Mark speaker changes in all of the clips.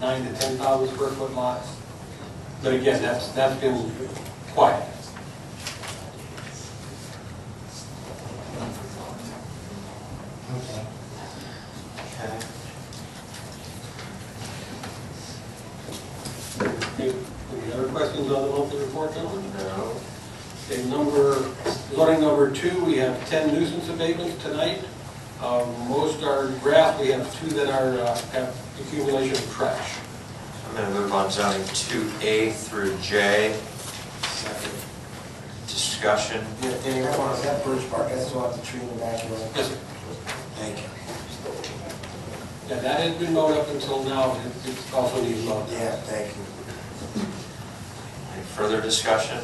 Speaker 1: nine to ten thousand square foot lots. But again, that's, that's been quiet.
Speaker 2: Okay. Okay.
Speaker 1: Okay, Any other questions on the monthly report, gentlemen?
Speaker 2: No.
Speaker 1: Okay, number, zoning number two, we have ten nuisance abatements tonight. Uh, Most are draft, we have two that are, uh, have accumulation of trash.
Speaker 2: I'm gonna move on zoning two A through J, discussion.
Speaker 3: Yeah, Danny, I want to that Birch Park, that's off the tree in the backyard.
Speaker 1: Yes, sir.
Speaker 3: Thank you.
Speaker 1: Yeah, that has been mowed up until now, It- it's also needs love.
Speaker 3: Yeah, thank you.
Speaker 2: Any further discussion?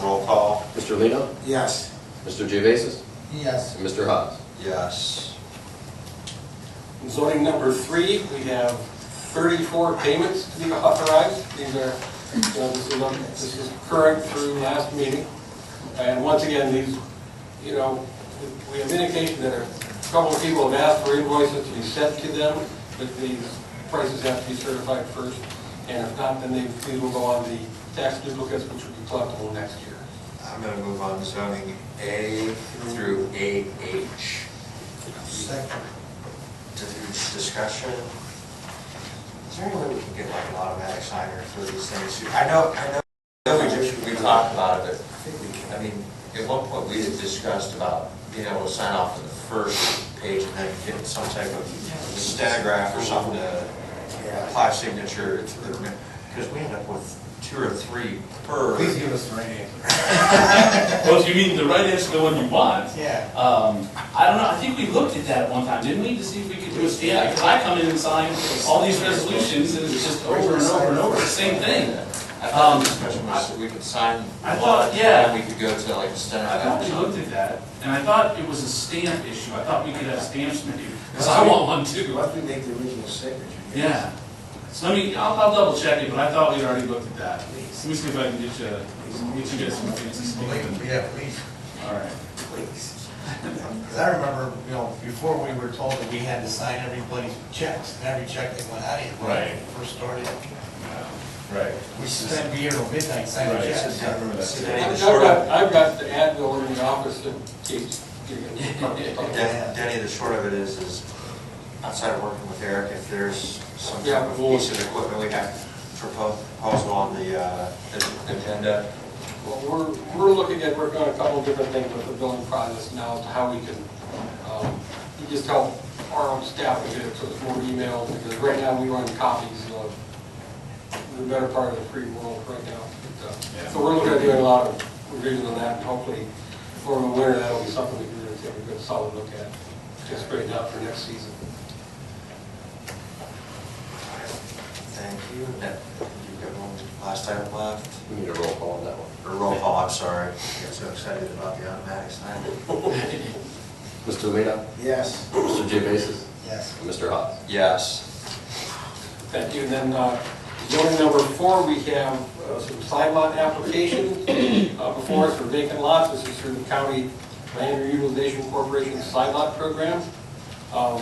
Speaker 2: Roll call.
Speaker 4: Mr. Lino,
Speaker 3: Yes.
Speaker 4: Mr. Geovasis,
Speaker 3: Yes.
Speaker 4: and Mr. Haas.
Speaker 2: Yes.
Speaker 1: Zoning number three, we have thirty-four payments to be authorized. These are, you know, this is, on- this is current through last meeting. And once again, these, you know, we have indication that a couple of people have asked for invoices to be sent to them, but these prices have to be certified first. And if not, then they, these will go on the tax duplicates, which will be collectible next year.
Speaker 2: I'm gonna move on zoning A through AH.
Speaker 3: Second.
Speaker 2: Discussion. Is there any way we can get like an automatic signer for these things? I know, I know, I know we just, we talked about it, but I think we can, I mean, at one point we had discussed about being able to sign off on the first page and then get some type of stenograph or something to
Speaker 3: Yeah.
Speaker 2: apply signature to the, because we end up with two or three per.
Speaker 3: Please give us the right answer.
Speaker 5: Well, if Oh, you mean the right answer, the one you want,
Speaker 3: Yeah.
Speaker 5: um, I don't know, I think we looked at that at one time, didn't we, to see if we could do a stamp? Because I come in and sign all these resolutions, and it's just over and over and over, the same thing.
Speaker 2: I thought
Speaker 5: Um,
Speaker 2: the discussion was that we could sign.
Speaker 5: I
Speaker 2: one,
Speaker 5: thought- yeah.
Speaker 2: And then we could go to like a
Speaker 5: I
Speaker 2: stenograph.
Speaker 5: thought we looked at that, and I thought it was a stamp issue, I thought we could have stamps maybe, because I want one too.
Speaker 3: Unless we make the original signature.
Speaker 5: Yeah, so let me, I'll, I'll double check it, but I thought we'd already looked at that. Let me see if I can get you, get you guys some fancy stamps.
Speaker 6: Yeah, please,
Speaker 5: All right.
Speaker 6: please. Because I remember, you know, before we were told that we had to sign everybody's checks, and every check that went out, it when I
Speaker 5: Right.
Speaker 6: first started.
Speaker 5: Right.
Speaker 6: We spent here till midnight signing
Speaker 5: Right.
Speaker 6: checks.
Speaker 2: So
Speaker 1: I've
Speaker 2: Danny, the
Speaker 1: I've
Speaker 2: short,
Speaker 1: got,
Speaker 2: of-
Speaker 1: I've got the ad bill in the office that keeps getting.
Speaker 2: Dan- Danny, the short of it is, is outside of working with Eric, if there's some
Speaker 1: Yeah,
Speaker 2: type of
Speaker 1: we'll-
Speaker 2: piece of equipment we have to propose, proposal on the, uh, the agenda.
Speaker 1: Well, we're, we're looking at, working on a couple of different things with the billing process now, as to how we can, um, we just help our own staff to get it, so it's more emails, because right now we run copies of the better part of the free world right now. But, uh, So we're looking at doing a lot of revision on that, and hopefully, for the winter, that'll be something we can really take a good solid look at, just straighten out for next season.
Speaker 2: Thank you. That- You've got one last item left,
Speaker 4: We need a roll call on that one.
Speaker 2: or roll call, I'm sorry. I got so excited about the automatic sign.
Speaker 4: Mr. Lino,
Speaker 3: Yes.
Speaker 4: Mr. Geovasis,
Speaker 3: Yes.
Speaker 4: and Mr. Haas.
Speaker 2: Yes.
Speaker 1: Thank you. And then, uh, zoning number four, we have uh, some side lot applications uh, before us for vacant lots. This is through the County Land Reutilization Corporation side lot program. Um,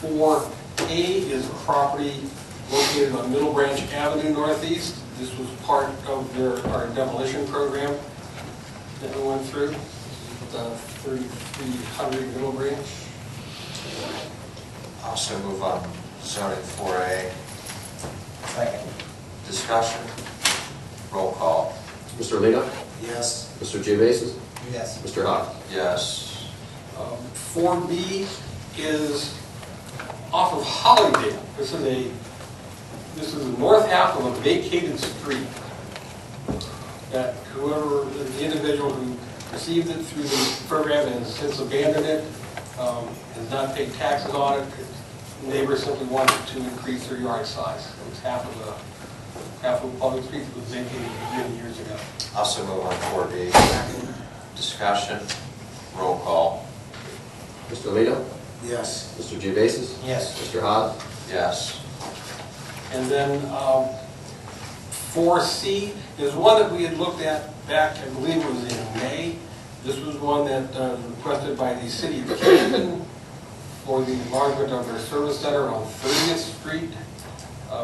Speaker 1: Four A is a property located on Middle Branch Avenue Northeast. This was part of their, our demolition program that we went through, the 3300 Middle Branch.
Speaker 2: Also move on zoning four A,
Speaker 3: Second.
Speaker 2: discussion, roll call.
Speaker 4: Mr. Lino,
Speaker 3: Yes.
Speaker 4: Mr. Geovasis,
Speaker 3: Yes.
Speaker 4: Mr. Haas.
Speaker 2: Yes.
Speaker 1: Four Um, B is off of Hollydale. This is a, this is the north half of a vacated street that whoever, the individual who received it through the program and has since abandoned it, um, has not paid taxes on it. Neighbors simply wanted to increase their yard size. It was half of a, half of a public street that was vacated many years ago.
Speaker 2: Also move on four B, discussion, roll call.
Speaker 4: Mr. Lino,
Speaker 3: Yes.
Speaker 4: Mr. Geovasis,
Speaker 3: Yes.
Speaker 4: Mr. Haas.
Speaker 2: Yes.
Speaker 1: And then um, 4C is one that we had looked at back, I believe it was in May. This was one that uh, requested by the city of Canton for the enlargement of their service center on 30th Street.